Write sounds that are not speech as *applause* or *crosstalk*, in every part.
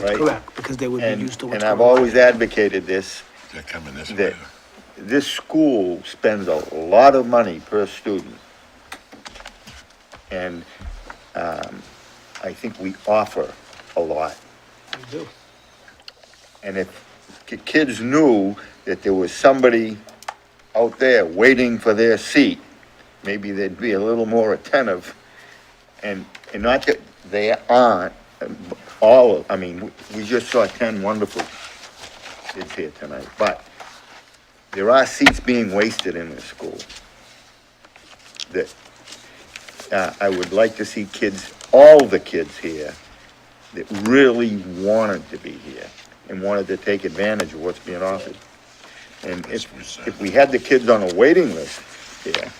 right? Correct, because they would be And- used to what's And I've going on. always advocated this, They're coming this that way. this school spends a lot of money per student. And um, I think we offer a lot. We do. And if ki- kids knew that there was somebody out there waiting for their seat, maybe they'd be a little more attentive. And, and not that they aren't, uh, b- all, of- I mean, w- we just saw ten wonderful kids here tonight, but there are seats being wasted in this school. That, uh, I would like to see kids, all the kids here, that really wanted to be here and wanted to take advantage of what's being offered. And if, if we had the kids on a waiting list, yeah,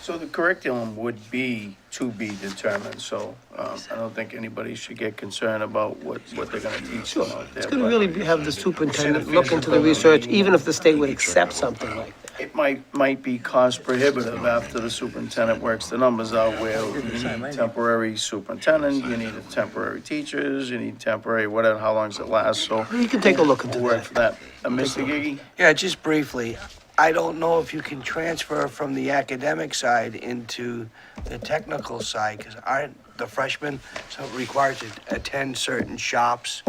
So the curriculum would be to be determined, so um, I don't think anybody should get concerned about what, what they're gonna teach them out there. It's gonna but really be- have the superintendent look into the research, even if the state would accept something like that. It might, might be cost prohibitive after the superintendent works the numbers out where you need temporary superintendent, you need temporary teachers, you need temporary, whatever, how long does it last, so You can take a look into we'll work that. for that. Uh, Mr. Gigi? Yeah, just briefly, I don't know if you can transfer from the academic side into the technical side, because aren't the freshmen so required to attend certain shops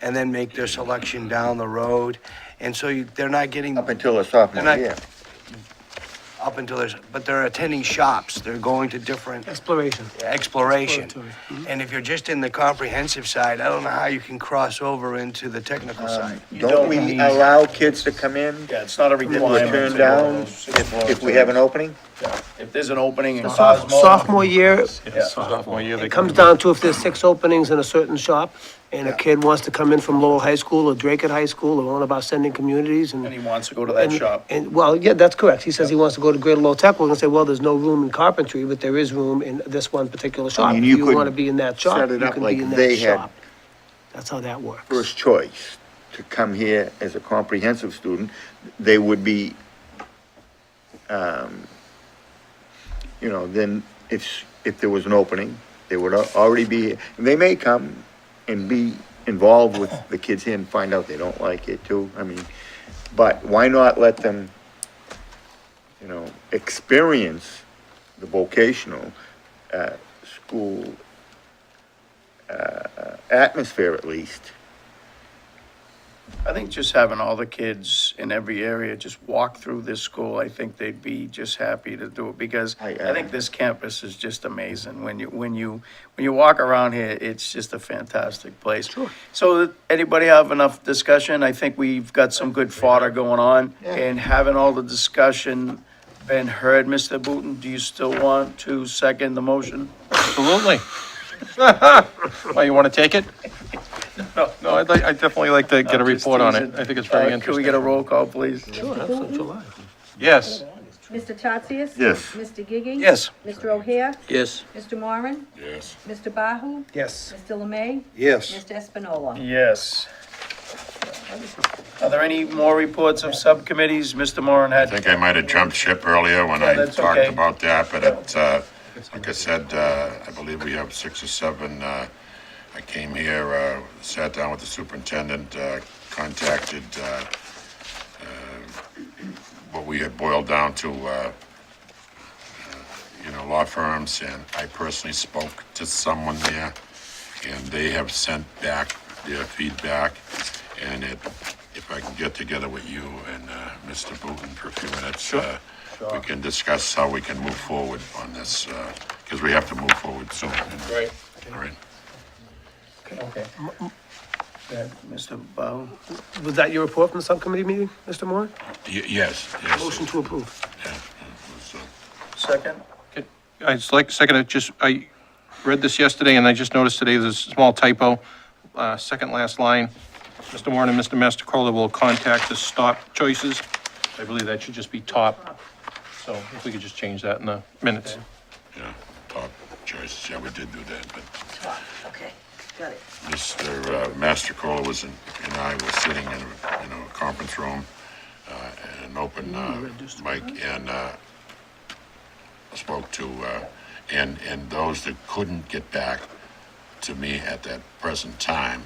and then make their selection down the road? And so you, they're not getting up until a sophomore And I- year. up until there's, but they're attending shops, they're going to different Exploration. exploration. Exploratory, And if you're just in the comprehensive side, I don't know how you can cross over into the technical Uh, side. Don't we allow kids to come in Yeah, it's not a that were requirement. turned down if, if we have an opening? If there's an opening in The soph- Cosmo. Sophomore year, Sophomore year, they it comes down to if there's six openings in a certain shop, and a kid wants to come in from Lowell High School or Drake at High School, or one of our sending communities, and. And he wants to go to that And- shop. And, well, yeah, that's correct. He says he wants to go to Greater Lowell Tech. We're gonna say, well, there's no room in carpentry, but there is room in this one particular shop. mean, If you you could wanna be in that shop, set it you up can like be in they that had shop. That's how that works. First choice to come here as a comprehensive student, they would be, um, you know, then if, if there was an opening, they would al- already be, here. And they may come and be involved with the kids here and find out they don't like it too, I mean, but why not let them, you know, experience the vocational, uh, school, uh, atmosphere at least? I think just having all the kids in every area just walk through this school, I think they'd be just happy to do it because I, I uh, think this campus is just amazing. When you, when you, when you walk around here, it's just a fantastic place. So anybody have enough discussion? I think we've got some good fodder going on and having all the discussion been heard, Mr. Booton, do you still want to second the motion? *laughs* Absolutely. Well, you want to take it? No, I'd like, I'd definitely like to get a I'm just report on it. teasing. I think it's Uh, very Can we interesting. get a roll call, please? Yes, Mr. Tatsias? Yes. Mr. Gigi? Yes. Mr. O'Hare? Yes. Mr. Moran? Yes. Mr. Bahu? Yes. Mr. Lemay? Yes. Mm. Mr. Espinola? Yes. Are there any more reports of subcommittees? Mr. Moran I had, think I might have jumped ship earlier when I that's talked okay. about that, but it, uh, like I said, uh, I believe we have six or seven, uh, I came here, uh, sat down with the superintendent, uh, contacted, uh, uh, what we had boiled down to, uh, you know, law firms, and I personally spoke to someone there, and they have sent back their feedback, and it, if I can get together with you and, uh, Mr. Booton for a few minutes, uh, we can discuss how we can move forward on this, uh, because we have to move forward soon. Right. All right. okay. Yeah, Mr. Bow, Was that your report from the subcommittee meeting, Mr. Moore? Y- yes, yes. Motion to approve. Yeah, it was, uh, second? I'd just like, second, I just, I read this yesterday and I just noticed today there's a small typo. Uh, second last line, Mr. Warren and Mr. Mastercola will contact the stop choices. I believe that should just be top. So if we could just change that in the minutes. Yeah, top choice, yeah, we did do that, but Okay, got it. Mr. Mastercola uh, was, in- and I was sitting in a, in a conference room, uh, and an open, uh, mic, and, uh, spoke to, uh, and, and those that couldn't get back to me at that present time.